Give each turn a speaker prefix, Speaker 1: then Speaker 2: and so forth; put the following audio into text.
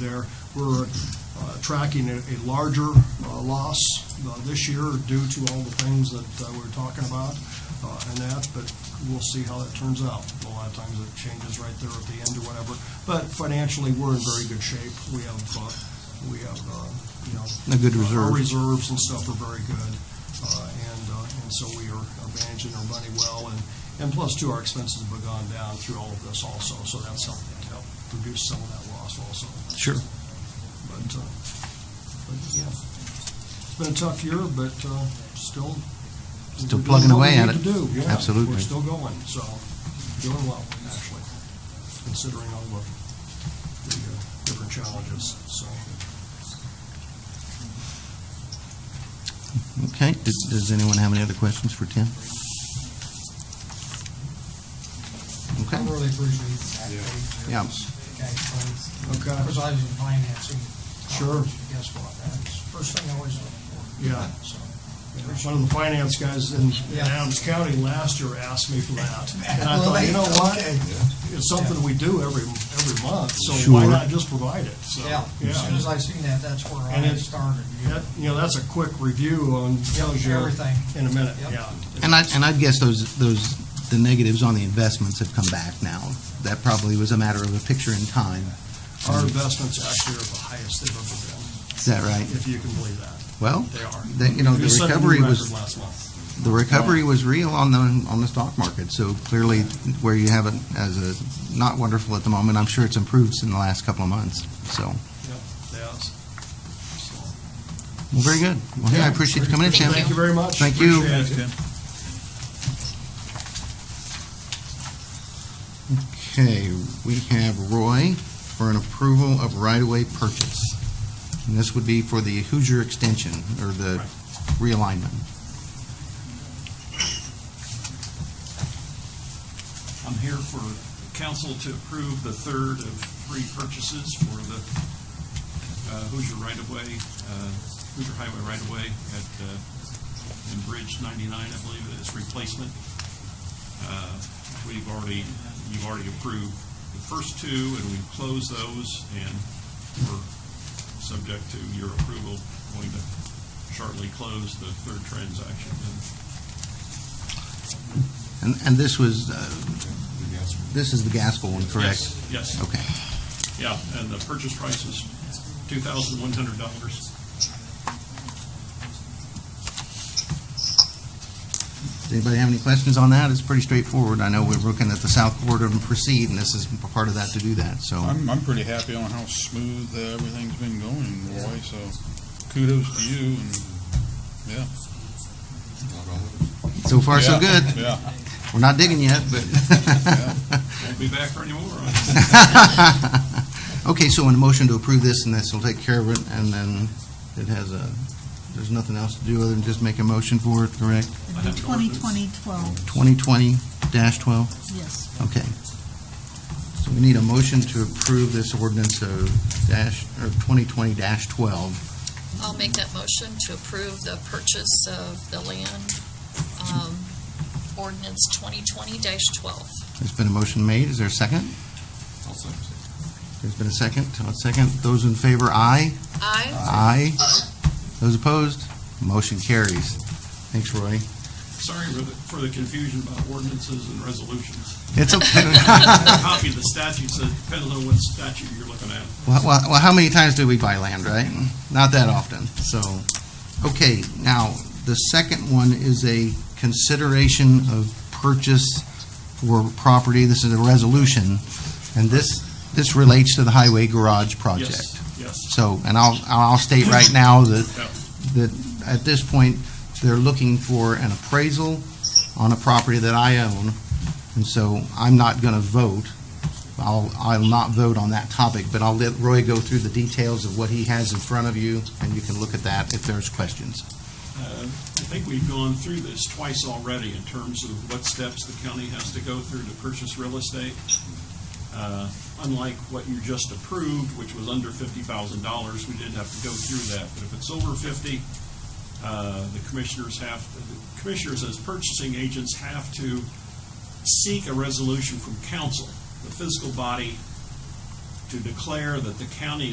Speaker 1: there. We're uh, tracking a a larger uh, loss uh, this year due to all the things that uh, we're talking about uh, and that, but we'll see how that turns out. A lot of times it changes right there at the end or whatever, but financially, we're in very good shape. We have, uh, we have, uh, you know.
Speaker 2: A good
Speaker 1: Our
Speaker 2: reserve.
Speaker 1: reserves and stuff are very good, uh, and, uh, and so we are managing our money well, and, and plus too, our expenses have gone down through all of this also, so that's helping to help reduce some of that loss also.
Speaker 2: Sure.
Speaker 1: But, uh, but, yeah, it's been a tough year, but, uh, still.
Speaker 2: Still
Speaker 1: we're doing
Speaker 2: plugging
Speaker 1: what we
Speaker 2: away at
Speaker 1: need
Speaker 2: it.
Speaker 1: to do, yeah. We're
Speaker 2: Absolutely.
Speaker 1: still going, so, doing well, actually, considering all the, the uh, different challenges, so.
Speaker 2: Okay, does, does anyone have any other questions for Tim?
Speaker 3: I
Speaker 2: Okay,
Speaker 3: really appreciate that page.
Speaker 2: Yeah.
Speaker 3: Okay, thanks.
Speaker 1: Okay.
Speaker 3: Because I was in financing. Uh,
Speaker 1: Sure.
Speaker 3: Guess what? That's the first thing I always look for.
Speaker 1: Yeah.
Speaker 3: So,
Speaker 1: One of the finance guys in in
Speaker 3: Yeah.
Speaker 1: Adams County last year asked me for that. And I thought, you know what?
Speaker 3: Okay.
Speaker 1: It's something we do every, every month, so why
Speaker 2: Sure.
Speaker 1: not just provide it? So,
Speaker 3: Yeah, as soon as I seen that, that's where
Speaker 1: And
Speaker 3: I
Speaker 1: it-
Speaker 3: started.
Speaker 1: That- You know, that's a quick review on, tells you.
Speaker 3: everything.
Speaker 1: In a minute,
Speaker 3: Yep.
Speaker 1: yeah.
Speaker 2: and I, and I'd guess those, those, the negatives on the investments have come back now. That probably was a matter of a picture in time.
Speaker 1: Our investments actually are the highest they've ever
Speaker 2: Is that right?
Speaker 1: been, if you can believe that.
Speaker 2: Well,
Speaker 1: They are.
Speaker 2: that, you know, the
Speaker 1: We set a new
Speaker 2: recovery was,
Speaker 1: record last month.
Speaker 2: the recovery was real on the, on the stock market. So clearly, where you have it as a, not wonderful at the moment, I'm sure it's improved in the last couple of months, so.
Speaker 1: Yep, yes. So,
Speaker 2: Well, very good. Well, hey, I appreciate you coming in, Tim.
Speaker 1: Thank you very much.
Speaker 2: Thank you.
Speaker 1: Appreciate it.
Speaker 2: Okay, we have Roy for an approval of right-of-way purchase. And this would be for the Hoosier extension, or the realignment.
Speaker 4: I'm here for council to approve the third of three purchases for the uh, Hoosier right-of-way, uh, Hoosier Highway right-of-way at, uh, in Bridge 99, I believe it is replacement. Uh, We've already, you've already approved the first two, and we've closed those, and we're subject to your approval, going to shortly close the third transaction. And
Speaker 2: And, and this was, uh, this is the Gaskell one, correct?
Speaker 4: Yes, Yes.
Speaker 2: Okay.
Speaker 4: Yeah, and the purchase price is two thousand one hundred dollars.
Speaker 2: Does anybody have any questions on that? It's pretty straightforward. I know we're looking at the south corridor and proceed, and this is part of that to do that, so.
Speaker 5: I'm, I'm pretty happy on how smooth uh, everything's been going, Roy, so kudos to you and, yeah.
Speaker 2: So far, so
Speaker 5: Yeah,
Speaker 2: good.
Speaker 5: Yeah,
Speaker 2: We're not digging yet, but.
Speaker 4: Won't be back for any more.
Speaker 2: Okay, so in a motion to approve this, and this will take care of it, and then it has a, there's nothing else to do other than just make a motion for it, correct?
Speaker 4: I have an ordinance.
Speaker 6: 2020-12,
Speaker 2: Twenty twenty twelve,
Speaker 6: yes.
Speaker 2: okay. So we need a motion to approve this ordinance of dash, or twenty twenty twelve.
Speaker 7: I'll make that motion to approve the purchase of the land, um, ordinance twenty twenty twelve.
Speaker 2: There's been a motion made, is there a second? There's been a second, a second, those in favor, aye?
Speaker 7: I,
Speaker 2: Aye. Those opposed? Motion carries. Thanks, Roy.
Speaker 4: Sorry for the, for the confusion about ordinances and resolutions.
Speaker 2: It's okay.
Speaker 4: Copy of the statutes, it depends on what statute you're looking at.
Speaker 2: Well, well, well, how many times do we buy land, right? Not that often, so, okay, now, the second one is a consideration of purchase for property, this is a resolution, and this, this relates to the highway garage project.
Speaker 4: Yes, yes.
Speaker 2: So, and I'll, I'll state right now that,
Speaker 4: Yeah.
Speaker 2: that at this point, they're looking for an appraisal on a property that I own, and so I'm not going to vote. I'll, I'll not vote on that topic, but I'll let Roy go through the details of what he has in front of you, and you can look at that if there's questions.
Speaker 4: Uh, I think we've gone through this twice already in terms of what steps the county has to go through to purchase real estate. Uh, Unlike what you just approved, which was under fifty thousand dollars, we didn't have to go through that. But if it's over fifty, uh, the commissioners have, the commissioners as purchasing agents have to seek a resolution from council, the fiscal body, to declare that the county